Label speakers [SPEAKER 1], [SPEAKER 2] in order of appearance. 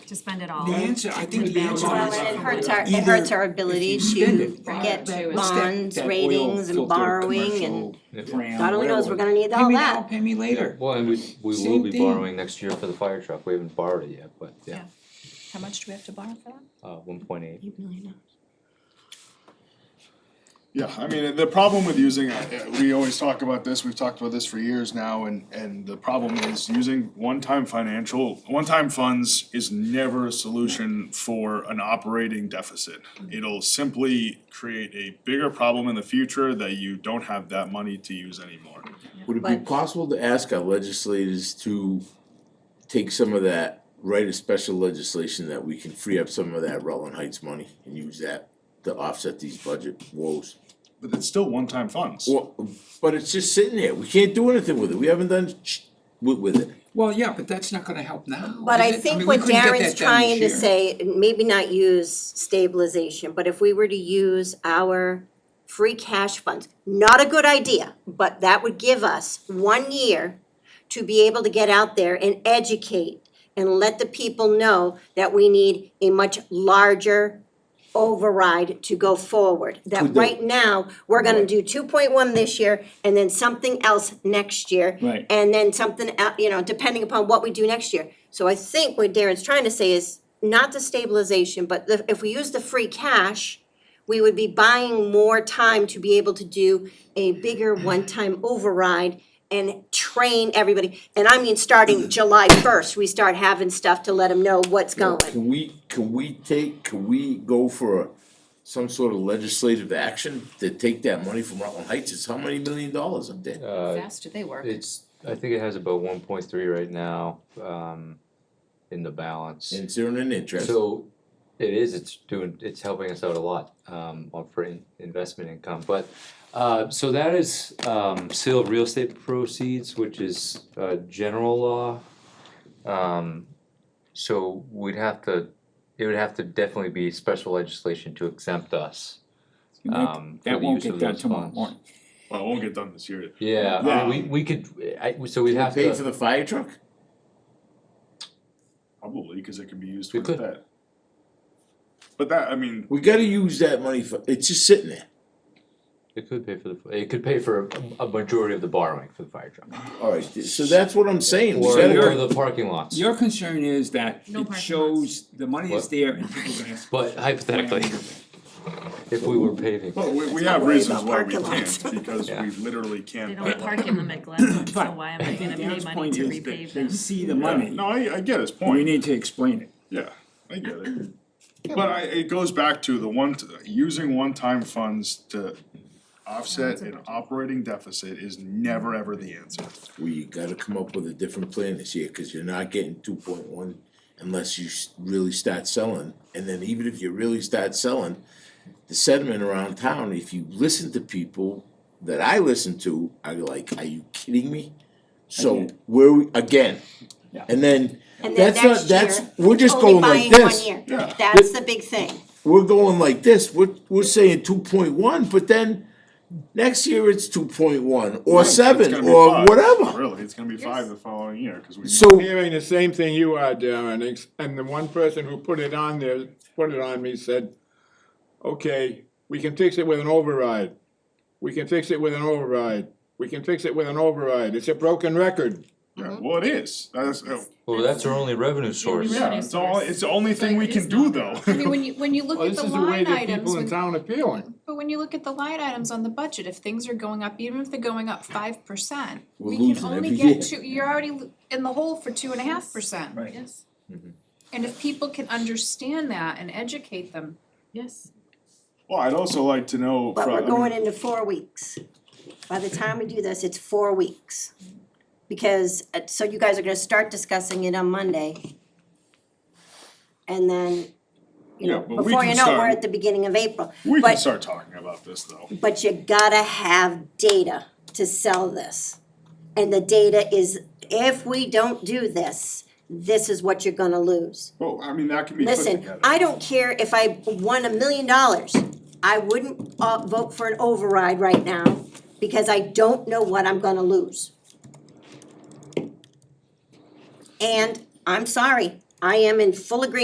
[SPEAKER 1] to spend it all.
[SPEAKER 2] The answer, I think the answer is.
[SPEAKER 3] Well, and it hurts our, it
[SPEAKER 2] either
[SPEAKER 3] hurts our ability
[SPEAKER 2] spend
[SPEAKER 3] to
[SPEAKER 2] it, right.
[SPEAKER 3] get
[SPEAKER 4] Right.
[SPEAKER 2] what's that-
[SPEAKER 3] bonds,
[SPEAKER 2] that oil
[SPEAKER 3] ratings and
[SPEAKER 2] filter
[SPEAKER 3] borrowing and
[SPEAKER 2] commercial brand,
[SPEAKER 3] God only knows,
[SPEAKER 2] whatever.
[SPEAKER 3] we're gonna need all that.
[SPEAKER 2] Pay me now, pay me later.
[SPEAKER 5] Well, and we, we will
[SPEAKER 2] Same
[SPEAKER 5] be
[SPEAKER 2] thing.
[SPEAKER 5] borrowing next year for the fire truck, we haven't borrowed it yet, but yeah,
[SPEAKER 4] How much do we have to borrow for that?
[SPEAKER 5] uh, one point eight.
[SPEAKER 6] Yeah, I mean, the problem with using, uh, we always talk about this, we've talked about this for years now, and, and the problem is using one-time financial, one-time funds is never a solution for an operating deficit. It'll simply create a bigger problem in the future that you don't have that money to use anymore.
[SPEAKER 7] Would it be
[SPEAKER 3] But-
[SPEAKER 7] possible to ask our legislators to take some of that, write a special legislation that we can free up some of that Rutland Heights money and use that to offset these budget woes?
[SPEAKER 6] But it's still one-time funds.
[SPEAKER 7] Well, but it's just sitting there, we can't do anything with it, we haven't done sh- with with it.
[SPEAKER 2] Well, yeah, but that's not gonna help now,
[SPEAKER 3] But I
[SPEAKER 2] is it?
[SPEAKER 3] think
[SPEAKER 2] mean, we
[SPEAKER 3] what
[SPEAKER 2] couldn't get
[SPEAKER 3] Darren's
[SPEAKER 2] that done this
[SPEAKER 3] trying to
[SPEAKER 2] year.
[SPEAKER 3] say, and maybe not use stabilization, but if we were to use our free cash funds, not a good idea, but that would give us one year to be able to get out there and educate and let the people know that we need a much larger override to go forward.
[SPEAKER 7] To
[SPEAKER 3] That
[SPEAKER 7] the-
[SPEAKER 3] right now, we're gonna do two point one this year and then something else next year.
[SPEAKER 2] Right.
[SPEAKER 3] And then something, el- you know, depending upon what we do next year. So I think what Darren's trying to say is not the stabilization, but the, if we use the free cash, we would be buying more time to be able to do a bigger one-time override and train everybody. And I mean, starting July first, we start having stuff to let them know what's going.
[SPEAKER 7] Can we, can we take, can we go for a- some sort of legislative action to take that money from Rutland Heights, it's how many million dollars up there?
[SPEAKER 5] Uh,
[SPEAKER 4] Fast do they work?
[SPEAKER 5] it's, I think it has about one point three right now, um, in the balance.
[SPEAKER 7] And it's earning interest.
[SPEAKER 5] So it is, it's doing, it's helping us out a lot um on for in- investment income, but uh so that is um sale of real estate proceeds, which is uh general law. Um so we'd have to, it would have to definitely be special legislation to exempt us.
[SPEAKER 2] You might-
[SPEAKER 5] Um for
[SPEAKER 2] That
[SPEAKER 5] the
[SPEAKER 2] won't
[SPEAKER 5] use
[SPEAKER 2] get
[SPEAKER 5] of
[SPEAKER 2] done
[SPEAKER 5] those
[SPEAKER 2] tomorrow
[SPEAKER 5] funds.
[SPEAKER 2] morning.
[SPEAKER 6] Well, it won't get done this year.
[SPEAKER 5] Yeah, I mean, we we could, I so we'd have to.
[SPEAKER 7] Pay for the fire truck?
[SPEAKER 6] Probably, cause it can be used
[SPEAKER 5] We could.
[SPEAKER 6] towards that. But that, I mean,
[SPEAKER 7] We gotta use that money for, it's just sitting there.
[SPEAKER 5] It could pay for the, it could pay for a a majority of the borrowing for the fire truck.
[SPEAKER 7] Alright, so that's what I'm saying, we
[SPEAKER 5] Or
[SPEAKER 7] gotta,
[SPEAKER 5] or the parking lots.
[SPEAKER 2] Your concern is that
[SPEAKER 1] No
[SPEAKER 2] it
[SPEAKER 1] parking
[SPEAKER 2] shows the money is
[SPEAKER 5] What?
[SPEAKER 2] there and people are gonna.
[SPEAKER 5] But hypothetically, if we were paving,
[SPEAKER 6] Well, we, we have
[SPEAKER 3] worry
[SPEAKER 6] reasons
[SPEAKER 3] about
[SPEAKER 6] why we
[SPEAKER 3] parking lots.
[SPEAKER 6] can't, because
[SPEAKER 5] Yeah.
[SPEAKER 6] we literally
[SPEAKER 1] They
[SPEAKER 6] can't.
[SPEAKER 1] don't
[SPEAKER 6] buy
[SPEAKER 1] park in them at Glen, so
[SPEAKER 2] But
[SPEAKER 1] why am I gonna pay
[SPEAKER 2] Darren's
[SPEAKER 1] money
[SPEAKER 2] point
[SPEAKER 1] to
[SPEAKER 2] is that
[SPEAKER 1] repave
[SPEAKER 2] They
[SPEAKER 1] them?
[SPEAKER 2] see the
[SPEAKER 6] Yeah,
[SPEAKER 2] money,
[SPEAKER 6] No, I, I get his
[SPEAKER 2] we
[SPEAKER 6] point,
[SPEAKER 2] need to explain it.
[SPEAKER 6] yeah, I get it. But I, it goes back to the one, t- using one-time funds to offset an operating deficit is never ever the answer.
[SPEAKER 7] we gotta come up with a different plan this year, cause you're not getting two point one unless you s- really start selling, and then even if you really start selling, the sentiment around town, if you listen to people that I listen to, are like, are you kidding me? So,
[SPEAKER 2] Again.
[SPEAKER 7] where, we- again,
[SPEAKER 2] Yeah.
[SPEAKER 7] and then,
[SPEAKER 3] And then
[SPEAKER 7] that's not,
[SPEAKER 3] next
[SPEAKER 7] that's,
[SPEAKER 3] year,
[SPEAKER 7] we're just
[SPEAKER 3] only
[SPEAKER 7] going like
[SPEAKER 3] buying
[SPEAKER 7] this.
[SPEAKER 3] one year.
[SPEAKER 6] Yeah.
[SPEAKER 3] That's the big thing.
[SPEAKER 7] we're going like this, we're, we're saying two point one, but then next year it's two point one, or
[SPEAKER 6] It's
[SPEAKER 7] seven,
[SPEAKER 6] gonna be
[SPEAKER 7] or
[SPEAKER 6] five,
[SPEAKER 7] whatever.
[SPEAKER 6] Really, it's gonna be five the following year, cause we.
[SPEAKER 7] So,
[SPEAKER 8] hearing the same thing you are, Darren, ex- and the one person who put it on there, put it on me, said, okay, we can fix it with an override. We can fix it with an override. We can fix it with an override. It's a broken record.
[SPEAKER 6] Yeah, Well, it is, that's, uh,
[SPEAKER 5] well, that's our only revenue source.
[SPEAKER 6] yeah, it's all, it's the only thing
[SPEAKER 4] But
[SPEAKER 6] we
[SPEAKER 4] it
[SPEAKER 6] can
[SPEAKER 4] is
[SPEAKER 6] do
[SPEAKER 4] not.
[SPEAKER 6] though.
[SPEAKER 4] I mean, when you, when you look
[SPEAKER 8] Well,
[SPEAKER 4] at
[SPEAKER 8] this
[SPEAKER 4] the
[SPEAKER 8] is the way
[SPEAKER 4] line
[SPEAKER 8] that people in
[SPEAKER 4] items, when-
[SPEAKER 8] town are feeling.
[SPEAKER 4] but when you look at the line items on the budget, if things are going up, even if they're going up five percent,
[SPEAKER 7] We're
[SPEAKER 4] we can
[SPEAKER 7] losing
[SPEAKER 4] only
[SPEAKER 7] every
[SPEAKER 4] get
[SPEAKER 7] year.
[SPEAKER 4] two, you're already lo- in the hole for two and a half percent.
[SPEAKER 2] Right.
[SPEAKER 1] Yes,
[SPEAKER 4] And if people can understand that and educate them,
[SPEAKER 1] yes.
[SPEAKER 6] Well, I'd also like to know.
[SPEAKER 3] But
[SPEAKER 6] from- I
[SPEAKER 3] we're
[SPEAKER 6] mean,
[SPEAKER 3] going into four weeks. By the time we do this, it's four weeks. Because, uh, so you guys are gonna start discussing it on Monday. And then, you
[SPEAKER 6] Yeah,
[SPEAKER 3] know,
[SPEAKER 6] but we
[SPEAKER 3] before
[SPEAKER 6] can
[SPEAKER 3] you know, it, we're
[SPEAKER 6] start-
[SPEAKER 3] at the beginning of April.
[SPEAKER 6] We can
[SPEAKER 3] But-
[SPEAKER 6] start talking about this though.
[SPEAKER 3] But you gotta have data to sell this. And the data is, if we don't do this, this is what you're gonna lose.
[SPEAKER 6] Well, I mean, that can be put
[SPEAKER 3] Listen,
[SPEAKER 6] together.
[SPEAKER 3] I don't care if I won a million dollars, I wouldn't uh vote for an override right now because I don't know what I'm gonna lose. And I'm sorry, I am in full agreement